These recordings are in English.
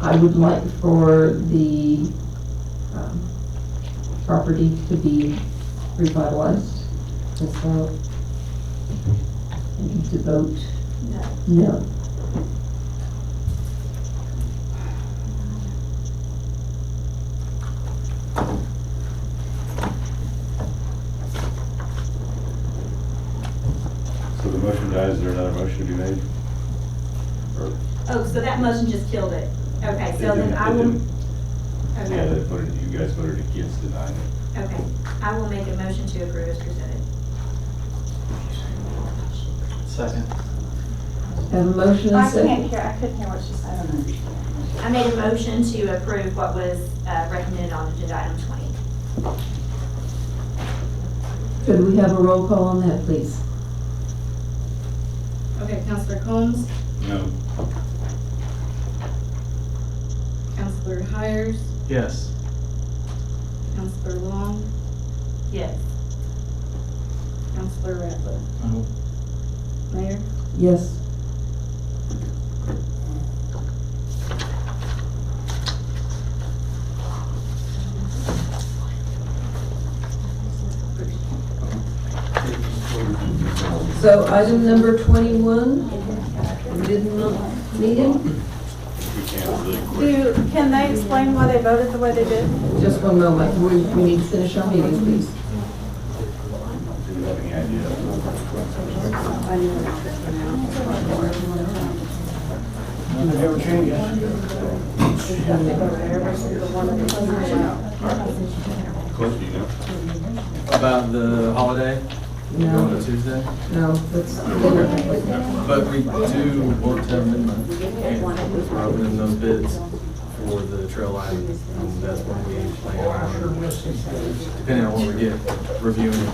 I would like for the, um, property to be revitalized. And so, and to vote No. no. So the motion dies, is there another motion to be made? Oh, so that motion just killed it. Okay, It so then didn't- I it will, didn't- Yeah, okay, they voted, you guys voted against denying it. okay. I will make a motion to approve as presented. Second. Have a motion and I second. can't hear, I couldn't hear what she said. I made a motion to approve what was uh, recommended on agenda item twenty. Could we have a roll call on that, please? Okay, Counselor Combs, No. Counselor Hires, Yes. Counselor Long, Yes. Counselor Ratliff. No. Mayor? Yes. So item number twenty-one, we did not need him. We can't really quit. Do, can they explain why they voted the way they did? Just one moment, we, we need to finish our meeting, please. Do you have any idea? Cliff, do you know? About the holiday, going No, to Tuesday, no, that's, but we do work till midnight. We're opening those bids for the trail line, and that's when we plan on, depending on what we get, reviewing.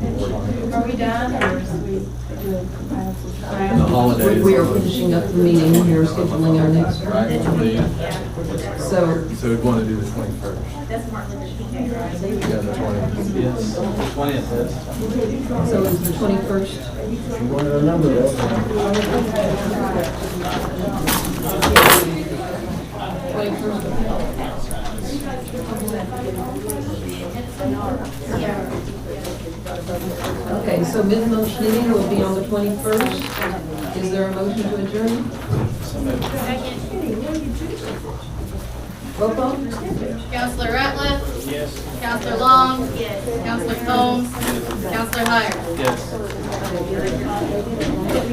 Are we done or is we? The we holidays. we are finishing up the meeting, we are scheduling our next one. Right, I believe. Yeah, So, so we'd want to do the twenty-first. that's Martin Luther King Day, right? Yeah, the twentieth. Yes, twentieth is. so it's the twenty-first. Okay, so mid-month meeting will be on the twenty-first. Is there a motion to adjourn? Roll call? Counselor Ratliff? Yes. Counselor Long? Yes. Counselor Combs? Counselor Hires? Yes.